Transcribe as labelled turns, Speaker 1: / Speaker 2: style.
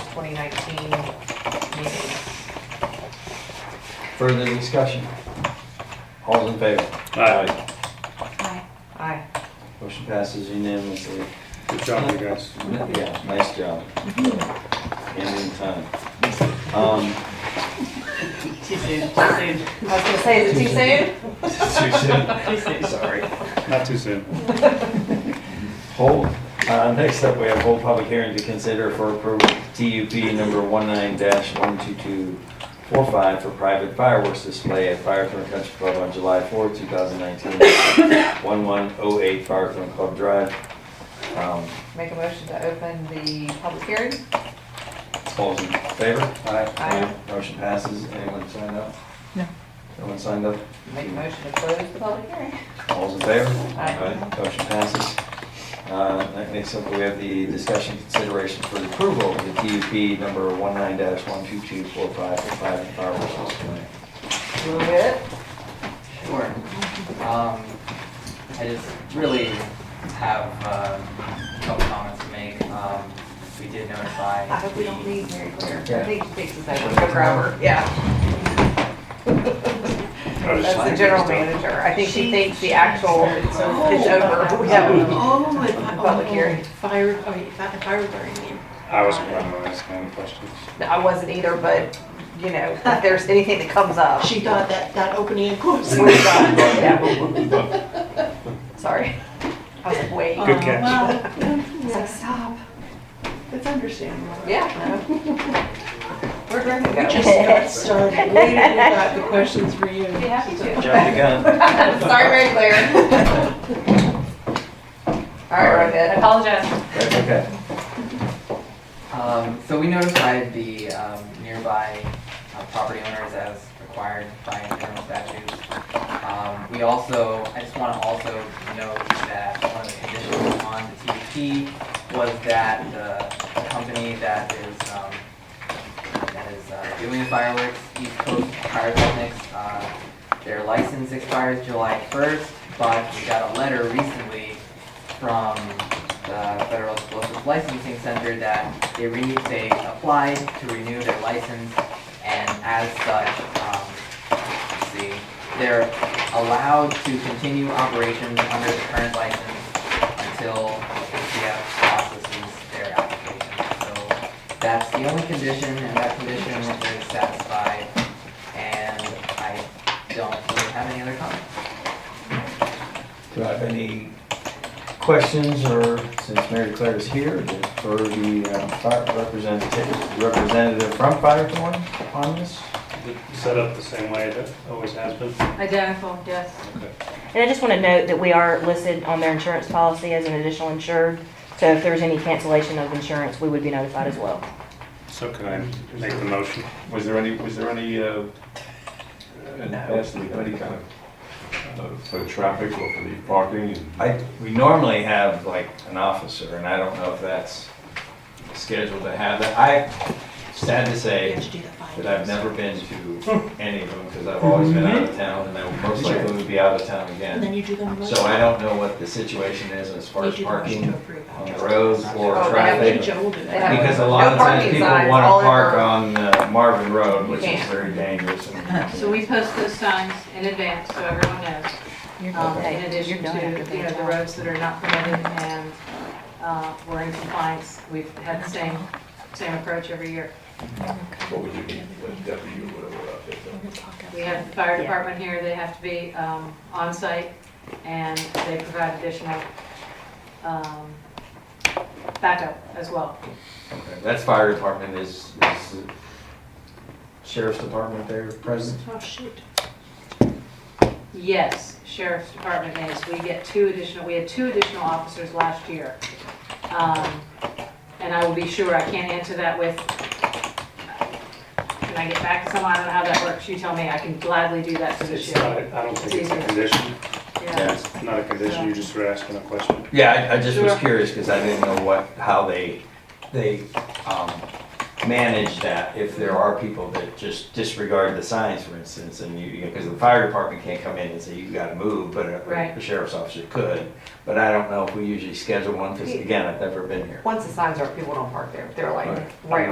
Speaker 1: 2019 meeting.
Speaker 2: Further discussion? All in favor?
Speaker 3: Aye.
Speaker 1: Aye.
Speaker 2: Motion passes unanimously.
Speaker 3: Good job, you guys.
Speaker 2: Yeah, nice job. And in time. Um,
Speaker 1: Too soon, too soon. I was gonna say, is it too soon?
Speaker 2: too soon.
Speaker 1: Too soon, sorry.
Speaker 3: Not too soon.
Speaker 2: Hold, uh, next up, we have whole public hearing to consider for approval, TUP number 19-12245 for private fireworks display at Firethorn Country Club on July 4th, 2019, 1108 Firethorn Club Drive. Um,
Speaker 1: Make a motion to open the public hearing.
Speaker 2: All in favor?
Speaker 1: Aye.
Speaker 2: Motion passes. Anyone signed up?
Speaker 4: No.
Speaker 2: No one signed up?
Speaker 1: Make a motion to close the public hearing.
Speaker 2: All's in favor?
Speaker 1: Aye.
Speaker 2: Motion passes. Uh, That makes up, we have the discussion consideration for the approval of the TUP number 19-12245 for private fireworks display.
Speaker 1: Will it?
Speaker 5: Sure. Um, I just really have, uh, a couple comments to make. Um, we did notify.
Speaker 1: I hope we don't
Speaker 5: the-
Speaker 1: leave Mary Claire.
Speaker 2: Yeah.
Speaker 1: I think she thinks it's over for her, yeah. That's the general manager. I think she Oh. thinks the actual is over. We haven't-
Speaker 6: Oh, my,
Speaker 1: Public hearing.
Speaker 6: oh, fire, oh, you thought the fire burning in.
Speaker 3: I was planning on asking any questions.
Speaker 1: No, I wasn't either, but, you know, if there's anything that comes up.
Speaker 6: She thought that, that opening and closing.
Speaker 1: Oh. we're done. Yeah. Sorry. I was like, wait.
Speaker 3: Good catch.
Speaker 6: Oh, It's like, stop. It's understandable.
Speaker 1: Yeah. no. We're going to go.
Speaker 6: Just got started, we didn't have the questions for you.
Speaker 1: Be happy to.
Speaker 2: Jump the gun.
Speaker 1: Sorry, Mary Claire. All right, we're good. Apologize.
Speaker 2: That's okay.
Speaker 5: Um, so we notified the, um, nearby uh, property owners as required by internal statutes. Um, we also, I just wanna also note that one of the conditions on the TUP was that the the company that is, um, that is uh, doing the fireworks, East Coast Pyrotechnics, uh, their license expires July first, but we got a letter recently from the uh, Federal Explosive Licensing Center that they re, they applied to renew their license, and as such, um, let's see, they're allowed to continue operations under the current license until CF processes their application. So that's the only condition, and that condition is satisfied, and I don't really have any other comments.
Speaker 2: Do I have any questions or, since Mary Claire is here, for the uh, fire representative, representative from Firethorn on this?
Speaker 3: Set up the same way that always has been.
Speaker 4: Identical, yes.
Speaker 7: And I just want to note that we are listed on their insurance policy as an additional insured. So if there's any cancellation of insurance, we would be notified as well.
Speaker 3: So can I make the motion?
Speaker 8: Was there any, was there any, uh, in the past, we had any kind of, uh, for traffic or for the parking? and-
Speaker 2: I, we normally have like an officer, and I don't know if that's scheduled to have that. I, sad to
Speaker 6: You
Speaker 2: say,
Speaker 6: have to do the findings.
Speaker 2: that I've never been to any of them, because I've always been out of
Speaker 1: Mm-hmm.
Speaker 2: town, and I will most likely would be out of town
Speaker 6: And then
Speaker 2: again.
Speaker 6: you do them.
Speaker 2: So I don't know what the situation is as far
Speaker 6: You
Speaker 2: as
Speaker 6: do the motion
Speaker 2: parking
Speaker 6: to approve
Speaker 2: on the
Speaker 6: after.
Speaker 2: roads or
Speaker 1: Oh,
Speaker 6: I think
Speaker 2: traffic.
Speaker 6: Joe will do
Speaker 1: They have-
Speaker 6: that.
Speaker 2: Because a lot
Speaker 1: No
Speaker 2: of times
Speaker 1: parking
Speaker 2: people
Speaker 1: signs
Speaker 2: want
Speaker 1: all
Speaker 2: to park
Speaker 1: over.
Speaker 2: on uh, Marvin Road, which is
Speaker 1: can't.
Speaker 2: very dangerous. and-
Speaker 9: So we post those signs in advance, so everyone knows, um, in addition to, you know, the roads that are not permitted and, uh, we're in compliance. We've had the same, same approach every year.
Speaker 8: What would you need, what deputy or whatever uh, out there?
Speaker 9: We have the fire department here, they have to be, um, on site and they provide additional, um, backup as well.
Speaker 2: Okay, That's fire department, is, is the sheriff's department there present?
Speaker 6: Oh, shoot.
Speaker 9: Yes, sheriff's department is, we get two additional, we had two additional officers last year. Um, And I will be sure, I can't answer that with, can I get back to someone, I don't know how that works, you tell me, I can gladly do that for this
Speaker 3: It's
Speaker 9: year.
Speaker 3: not, I don't think it's a condition,
Speaker 9: Yeah.
Speaker 3: not a condition, you just were asking a question.
Speaker 2: Yeah, I, I just was
Speaker 9: Sure.
Speaker 2: curious because I didn't know what, how they, they, um, manage that. If there are people that just disregard the signs, for instance, and you, because the fire department can't come in and say, you gotta move, but a-
Speaker 9: Right.
Speaker 2: a sheriff's officer could. But I don't know if we usually schedule one because again, I've never been here.
Speaker 1: Once the signs are up, people don't park there. They're like,
Speaker 2: Right.
Speaker 1: right